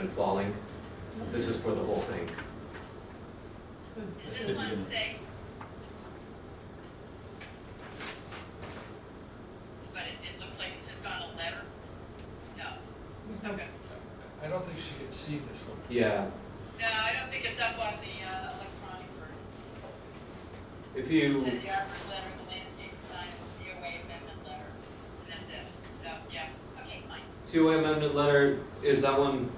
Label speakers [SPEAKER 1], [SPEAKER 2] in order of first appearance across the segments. [SPEAKER 1] and falling. This is for the whole thing.
[SPEAKER 2] This is one thing. But it, it looks like it's just on a letter? No. Okay.
[SPEAKER 3] I don't think she could see this one.
[SPEAKER 1] Yeah,
[SPEAKER 2] No, I don't think it's up on the, uh, electronic version.
[SPEAKER 1] if
[SPEAKER 2] It
[SPEAKER 1] you,
[SPEAKER 2] says the arborist letter, the landscape design, the COA amendment letter, and that's it. So, yeah, okay, fine.
[SPEAKER 1] COA amended letter, is that one?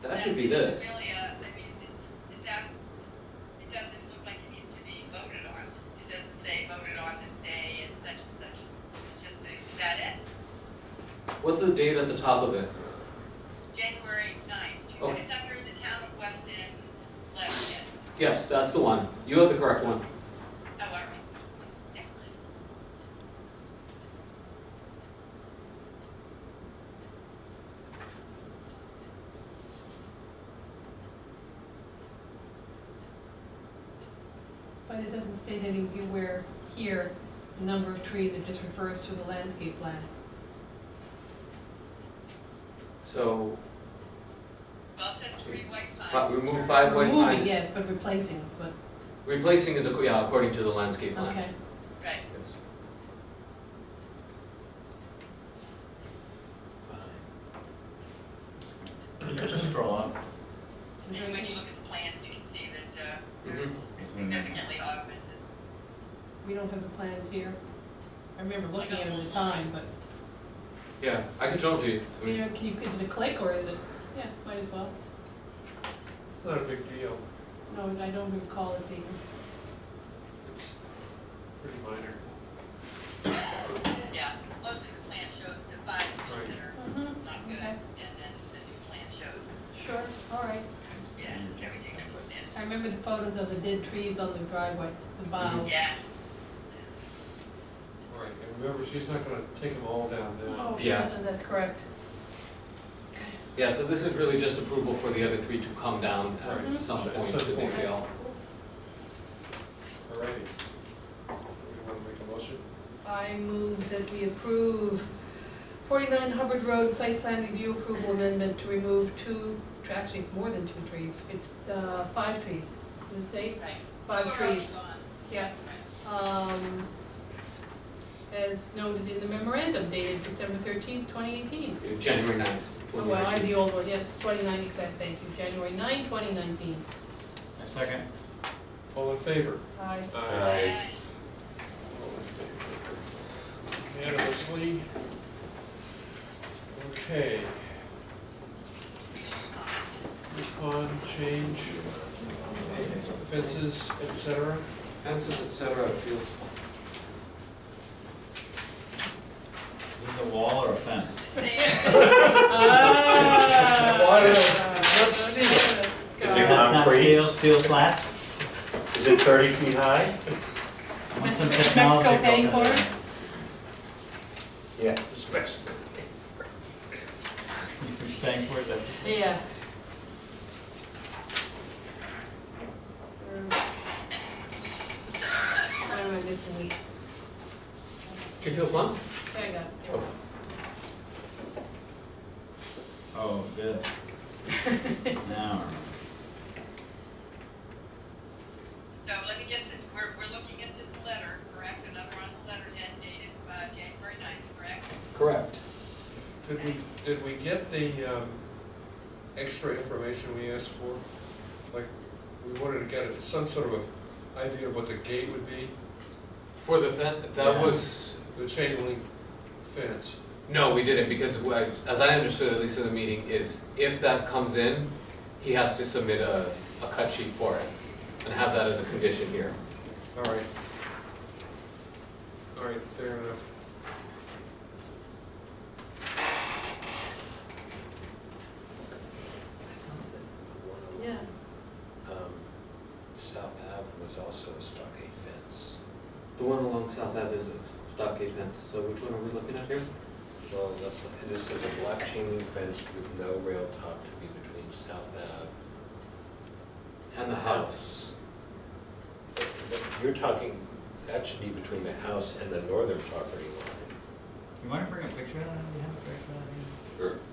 [SPEAKER 1] That should be
[SPEAKER 2] That's
[SPEAKER 1] this.
[SPEAKER 2] Really, uh, I mean, it- is that, it doesn't look like it needs to be voted on. It doesn't say voted on this day and such and such. It's just, a- is that it?
[SPEAKER 1] What's the date at the top of it?
[SPEAKER 2] January ninth, two
[SPEAKER 1] Oh.
[SPEAKER 2] thousand, it's under the town of Weston letterhead,
[SPEAKER 1] Yes, that's the one. You have the correct one.
[SPEAKER 2] oh, all right. Excellent.
[SPEAKER 4] But it doesn't state anywhere here the number of trees, it just refers to the landscape plan.
[SPEAKER 1] So,
[SPEAKER 2] Well, it says three white
[SPEAKER 1] fi-
[SPEAKER 2] pines.
[SPEAKER 1] remove five white
[SPEAKER 4] Removing,
[SPEAKER 1] pines.
[SPEAKER 4] yes, but replacing, but,
[SPEAKER 1] Replacing is, ac- yeah, according to the landscape plan.
[SPEAKER 4] okay.
[SPEAKER 2] Right,
[SPEAKER 1] Yes.
[SPEAKER 5] You can just scroll up.
[SPEAKER 2] and when you look at the plans, you can see that, uh,
[SPEAKER 1] Mm-hmm.
[SPEAKER 2] there's
[SPEAKER 5] It's in there.
[SPEAKER 2] significantly augmented.
[SPEAKER 4] We don't have the plans here. I remember looking at it at the time, but,
[SPEAKER 1] Yeah, I can show them to you. I
[SPEAKER 4] you
[SPEAKER 1] mean,
[SPEAKER 4] know, can you, is it a click or is it, yeah, might as well.
[SPEAKER 3] It's not a big deal,
[SPEAKER 4] No, I don't recall it being,
[SPEAKER 3] it's pretty minor.
[SPEAKER 2] Yeah, mostly the plan shows the five trees that are
[SPEAKER 4] Mhm,
[SPEAKER 2] not good,
[SPEAKER 4] okay.
[SPEAKER 2] and then the new plan shows,
[SPEAKER 4] sure, all right.
[SPEAKER 2] yeah,
[SPEAKER 5] Mm-hmm.
[SPEAKER 2] everything that's put in.
[SPEAKER 4] I remember the photos of the dead trees on the driveway, the boughs.
[SPEAKER 2] Yeah,
[SPEAKER 3] All right, and remember, she's not gonna take them all down now.
[SPEAKER 4] Oh, sure,
[SPEAKER 1] Yeah.
[SPEAKER 4] so that's correct.
[SPEAKER 1] Yeah, so this is really just approval for the other three to come down
[SPEAKER 3] Right.
[SPEAKER 1] at some
[SPEAKER 3] At
[SPEAKER 1] point
[SPEAKER 3] some
[SPEAKER 1] if they
[SPEAKER 3] point.
[SPEAKER 1] fail.
[SPEAKER 3] All righty. You wanna make a motion?
[SPEAKER 4] I move that we approve forty-nine Hubbard Road site plan review approval amendment to remove two, actually, it's more than two trees, it's, uh, five trees, did it say?
[SPEAKER 2] right.
[SPEAKER 4] Five
[SPEAKER 2] Two are already
[SPEAKER 4] trees.
[SPEAKER 2] gone.
[SPEAKER 4] Yeah,
[SPEAKER 2] Right.
[SPEAKER 4] um, as noted in the memorandum dated December thirteenth, twenty eighteen.
[SPEAKER 1] January ninth,
[SPEAKER 4] Oh,
[SPEAKER 1] twenty
[SPEAKER 4] well, I have
[SPEAKER 1] nineteen.
[SPEAKER 4] the old one, yeah, twenty-nine exact, thank you, January 9, twenty nineteen.
[SPEAKER 5] A second.
[SPEAKER 3] All in favor?
[SPEAKER 4] I,
[SPEAKER 5] Aye.
[SPEAKER 3] All in favor. Unanimously. Okay, respond, change, fences, et cetera.
[SPEAKER 1] Fences, et cetera, fields.
[SPEAKER 5] Is this a wall or a fence?
[SPEAKER 4] Ah.
[SPEAKER 3] It's not steel.
[SPEAKER 6] Is
[SPEAKER 5] That's
[SPEAKER 6] it
[SPEAKER 4] God.
[SPEAKER 5] not
[SPEAKER 6] concrete?
[SPEAKER 5] Steel, steel slats?
[SPEAKER 6] Is it thirty feet high?
[SPEAKER 5] I want some
[SPEAKER 4] Mexico
[SPEAKER 5] technology built
[SPEAKER 4] paying
[SPEAKER 5] in
[SPEAKER 4] for
[SPEAKER 5] there.
[SPEAKER 4] it?
[SPEAKER 6] Yeah, it's Mexico.
[SPEAKER 5] You can thank for it, but
[SPEAKER 4] Yeah. What am I missing?
[SPEAKER 1] Two fields, one?
[SPEAKER 4] There you go.
[SPEAKER 5] Oh, this. Now.
[SPEAKER 2] So let me get this, we're, we're looking at this letter, correct, another on the letterhead dated, uh, January ninth, correct?
[SPEAKER 1] Correct.
[SPEAKER 3] Did we, did we get the um, extra information we asked for? Like, we wanted to get some sort of a idea of what the gate would be,
[SPEAKER 1] For the fen that
[SPEAKER 5] Yeah.
[SPEAKER 1] was,
[SPEAKER 3] the chain link fence.
[SPEAKER 1] no, we didn't, because what I- as I understood, at least in the meeting, is if that comes in, he has to submit a, a cut sheet for it, and have that as a condition here.
[SPEAKER 3] All right. All right, fair enough.
[SPEAKER 4] Yeah,
[SPEAKER 6] Um, South Ave was also a stockade fence.
[SPEAKER 1] The one along South Ave is a stockade fence, so which one are we looking at here?
[SPEAKER 6] Well, that's, this is a black chain link fence with no rail top to be between South Ave and the house. But- but You're talking, that should be between the house and the northern property line.
[SPEAKER 5] You wanna bring a picture of that? Do you have a picture of that?
[SPEAKER 6] Sure.